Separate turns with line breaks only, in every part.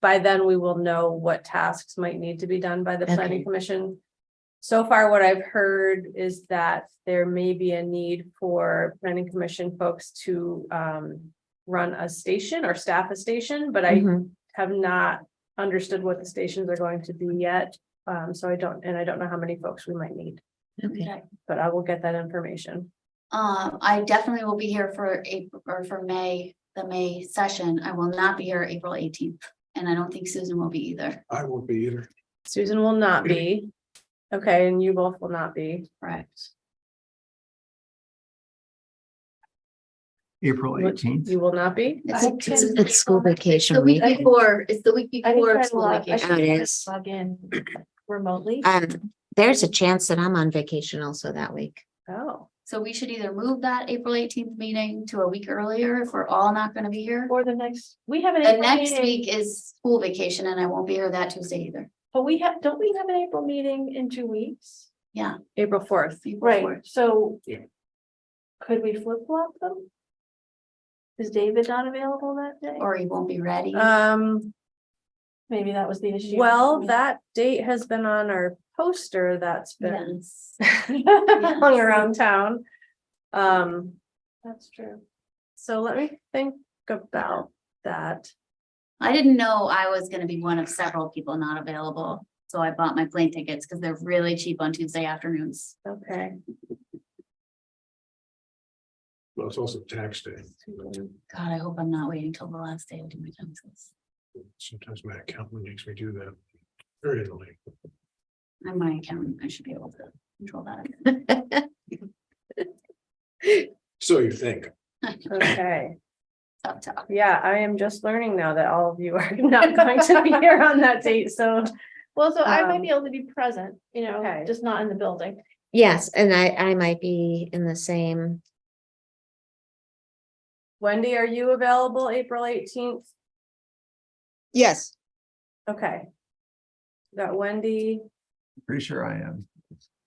by then we will know what tasks might need to be done by the
Okay.
planning commission. So far, what I've heard is that there may be a need for planning commission folks to um. Run a station or staff a station, but I
Mhm.
have not understood what the stations are going to be yet. Um, so I don't, and I don't know how many folks we might need,
Okay,
but I will get that information.
Um, I definitely will be here for April or for May, the May session. I will not be here April eighteenth. And I don't think Susan will be either.
I won't be either.
Susan will not be. Okay, and you both will not be.
Correct.
April eighteenth.
You will not be?
It's a
It's
Tuesday.
it's school
The
vacation
week
week.
before, it's the week before school
Oh,
vacation.
it is.
Log in remotely.
Um, there's a chance that I'm on vacation also that week.
Oh,
So we should either move that April eighteenth meeting to a week earlier if we're all not gonna be here.
Or the next, we have an.
The
April
next
meeting,
week is school vacation and I won't be here that Tuesday either.
But we have, don't we have an April meeting in two weeks?
April fourth.
April
Right,
4th.
so.
Yeah.
Could we flip flop them? Is David not available that day?
Or he won't be ready.
Uh,
Um,
Maybe that was the issue.
well, that date has been on our poster that's been
Yes.
hung around town. Um,
That's true.
so let me think about that.
I didn't know I was gonna be one of several people not available, so I bought my plane tickets because they're really cheap on Tuesday afternoons.
Okay.
Well, it's also tax day.
God, I hope I'm not waiting till the last day to do my taxes.
Sometimes my accountant makes me do that. Very early.
I'm my accountant, I should be able to control that.
So you think.
Okay,
Tough talk.
yeah, I am just learning now that all of you are not going to be here on that date, so.
Well, so I might
Um,
be able to be present, you know,
okay.
just not in the building.
Yes, and I, I might be in the same,
Wendy, are you available April eighteenth?
Yes,
Okay. Got Wendy,
Pretty sure I am.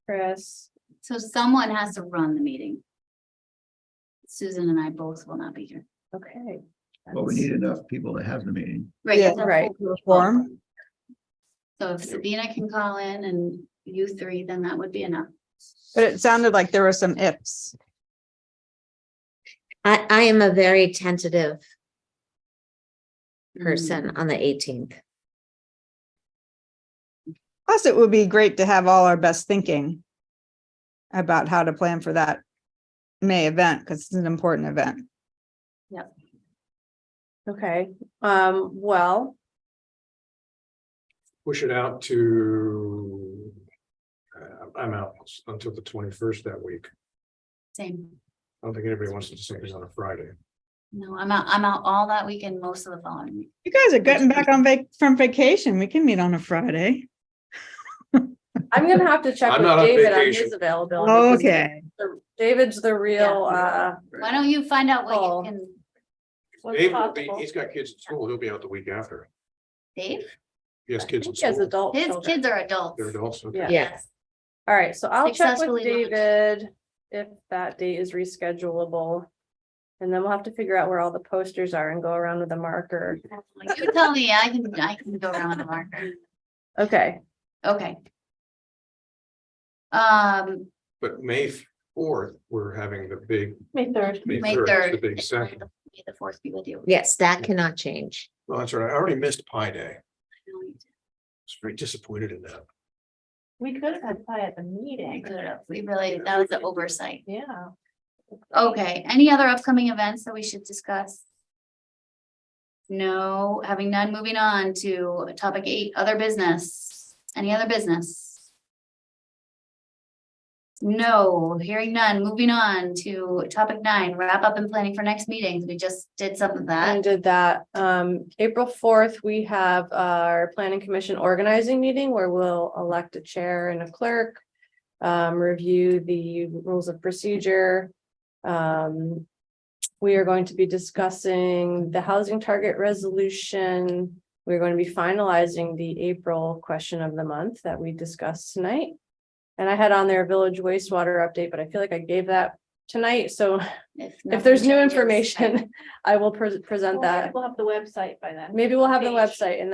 Chris,
So someone has to run the meeting. Susan and I both will not be here.
okay.
But we need enough people to have the meeting.
Right,
Yeah.
that's a
Right.
full group.
form.
So if Sabina can call in and you three, then that would be enough.
but it sounded like there were some ifs.
I, I am a very tentative Mm.
Mm,
person on the eighteenth.
Plus, it would be great to have all our best thinking about how to plan for that May event, because it's an important event.
Okay, um, well,
Push it out to. Uh, I'm out until the twenty-first that week.
Same.
I don't think anybody wants to do something on a Friday.
No, I'm out, I'm out all that week and most of the following week.
You guys are getting back on vac, from vacation. We can meet on a Friday.
I'm gonna have to check
I'm
with
not on
David on
vacation.
his availability. 'cause
Okay,
the- David's the real, uh,
Why don't you find out
Oh.
what you can,
what's
Dave will be,
possible.
he's got kids at school. He'll be out the week after.
Dave?
He has
I think
kids in
he has
school.
adult
His
children.
kids are adults.
They're adults. okay.
Yeah.
Yes.
All right, so I'll check with
Successfully launched.
David if that date is reschedulable. And then we'll have to figure out where all the posters are and go around with a marker.
Like, You tell me, I can, I can go around the marker.
Okay,
Okay. Um,
But May fourth, we're having the big,
May third.
May
May
third,
third.
the big second.
May the fourth be with you.
Yes, that cannot change.
Well, that's right. I already missed Pi Day. I was very disappointed in that.
We could have had pie at the
We
meeting.
could have- we really, that was an oversight.
Yeah.
Okay, any other upcoming events that we should discuss? No, having none, moving on to topic eight, other business. Any other business? No, hearing none, moving on to topic nine, wrap up and planning for next meetings. We just did some of that.
and did that. Um, April fourth, we have our planning commission organizing meeting where we'll elect a chair and a clerk. Um, review the rules of procedure. Um, we are going to be discussing the housing target resolution. We're going to be finalizing the April question of the month that we discussed tonight. And I had on there village wastewater update, but I feel like I gave that tonight, so if
nothing
there's new
changes, I-
information, I will pres- present
We'll
that.
we'll have the website by then.
Maybe we'll have the
Page.
website and